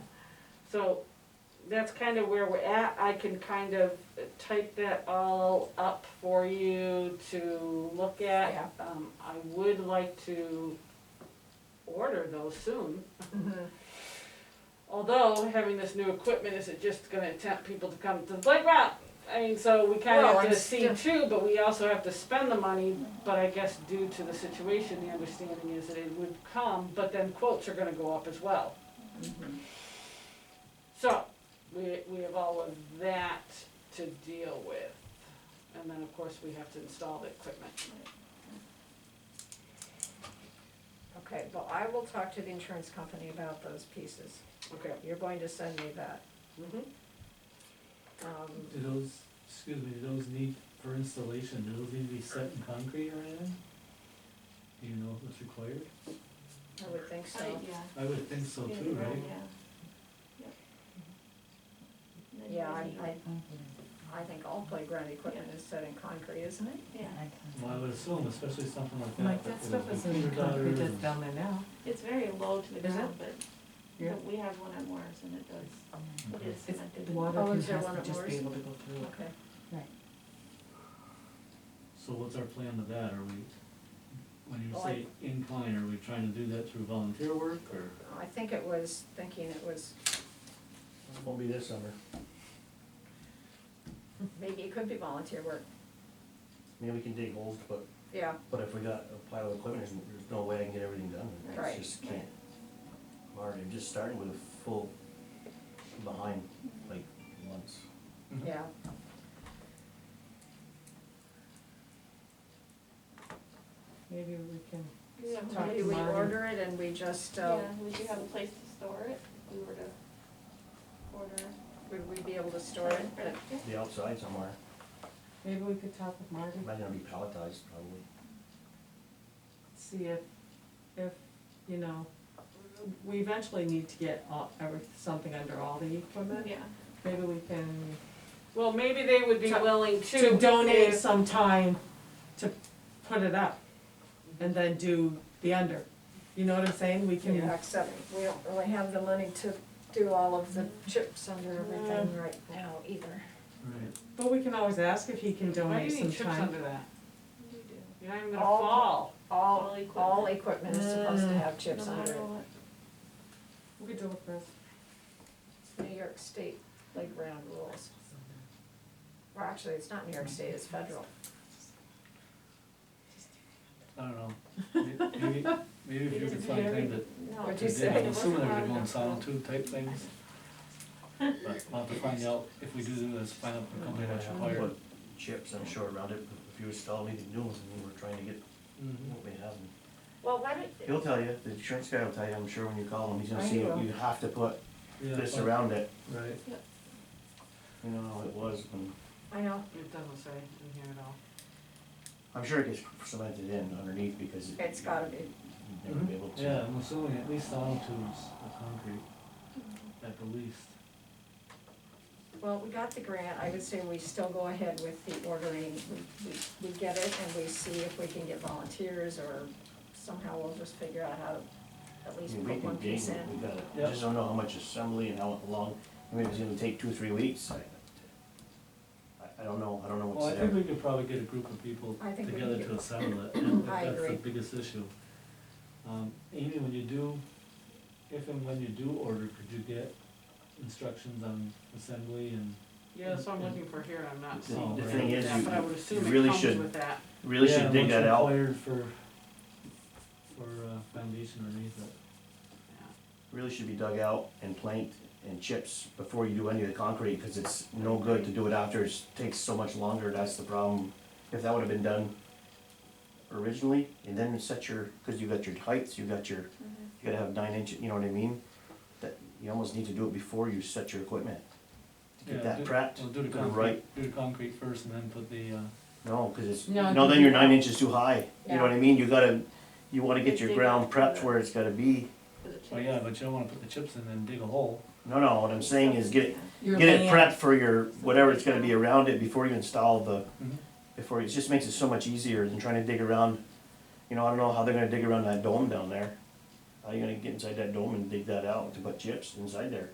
So that's kind of where we're at. I can kind of type that all up for you to look at. Yeah. Um, I would like to order those soon. Mm-hmm. Although having this new equipment, is it just gonna tempt people to come to the playground? I mean, so we kind of Well, Mm-hmm. have and to see still- too, but we also have to spend the money. But I guess due to the situation, the understanding is that it would come, but then quotes are gonna go up as well. Mm-hmm. So, we, we have all of that to deal with. And then, of course, we have to install the equipment. Okay, well, I will talk to the insurance company about those pieces. Okay. You're going to send me that. Mhm. Um, Do those, excuse me, do those need, for installation, do those need to be set in concrete or anything? Do you know what's required? I would think so. I- yeah. I would think so too, Yeah, right? yeah. Yep. Yeah, I, I, I think all playground equipment is set in concrete, isn't it? Yeah, Well, I would assume, especially something like that. Like, that with stuff is in computer concrete gutters that's down there now. it's very low to the Is it? ground, but, Yeah. but we have one at Morris and it does, and- it is It's connected. The water Oh, can is there one has at to just be Moore's? able to go through it. Okay. So what's our plan with that? Are we, when you Oh, Well, say incline, are we trying to do that through volunteer work or? I think it was thinking it was, Won't be this summer. maybe it could be volunteer work. Maybe we can dig holes, but, Yeah, but if we got a pile of equipment, there's, there's no way I can get everything done. Right. It's just can't. Marty, I'm just starting with a full behind, like, once. yeah. Maybe we can, Yeah, Talk Maybe to we Marty. order it and we just, Yeah, uh, would you have a place to store it if we were to order? would we be able to store it? Or- yeah. The outside somewhere, maybe we could talk with Marty, might not be palletized probably. see if, if, you know, we eventually need to get all, every, something under all the equipment. Yeah, Maybe we can, Well, maybe they would be To- willing to. to donate if- some time to put it up and then do the under. You know what I'm saying? We Yeah, can, except we don't really have the money to do all of the chips under everything right now either. Right, but we can always ask if he can Why donate do you some need chips time. under that? we do. You're not even gonna All- fall. All, All all equipment is supposed to Mm. have chips No under matter it. what. We could do it first. New York State playground rules. Well, actually, it's not New York State, it's federal. I don't know. May- Maybe, maybe if you could find time to No, What'd They you did. say? I'm assuming they It were wasn't doing hard solid enough. tube type things. But we'll have to find out, if we do this, find out the company that's Might required. put Chips, I'm sure, around it, if you install anything new, and we're trying to get Mhm. what we have. and- Well, why don't, He'll tell you, the insurance guy will tell you, I'm sure when you call him, he's I gonna say, know. you have to put Yeah, this but- around it. Right, You know, how it was, when- I know, It doesn't say in here at all. I'm sure it gets cemented in underneath because it. it's gotta be, You'd Never be able to. yeah, I'm assuming at least solid tubes of concrete, Mm-hmm. at the least. well, we got the grant, I would say we still go ahead with the ordering. We- We, we get it and we see if we can get volunteers or somehow we'll just figure out how to at I least mean, we put can one gain, piece in. we got it, Yeah. just don't know how much assembly and how long, I mean, if it's gonna take two, three weeks. I, I don't know, I don't know Well, I what's think there. we could probably get a group of people I think we together could. to assemble it, and I that's the agree. biggest issue. Um, Amy, when you do, if and when you do order, could you get instructions on assembly and? Yeah, that's what I'm looking for here, I'm not The- seeing. the it thing with is, that, you- But I would assume it really comes should- with that. Really Yeah, should dig what's that out, required for, for uh, foundation underneath it. Yeah. really should be dug out and planked and chips before you do any of the concrete, cause it's no good to do it after, it takes so much longer, that's the problem. If that would've been done originally, and then set your, cause you got your heights, you got your Mhm. you gotta have nine inch, you know what I mean? That, you almost need to do it before you set your equipment. To Yeah, get that do- prepped, Well, do the put it right, concrete, do the concrete first and then put the, uh, no, cause it's, No, no, then you're nine inches too high, you know what I mean? You gotta, you wanna get your Dig ground up. prepped where it's gotta be. For the well, chips. yeah, but you don't wanna put the chips in and dig a hole. No, no, what I'm saying is get, Yeah. Your get it land. prepped for your, whatever it's gonna be around it before you install the, Mhm. before, it just makes it so much easier than trying to dig around. You know, I don't know how they're gonna dig around that dome down there. How you gonna get inside that dome and dig that out to put chips inside there?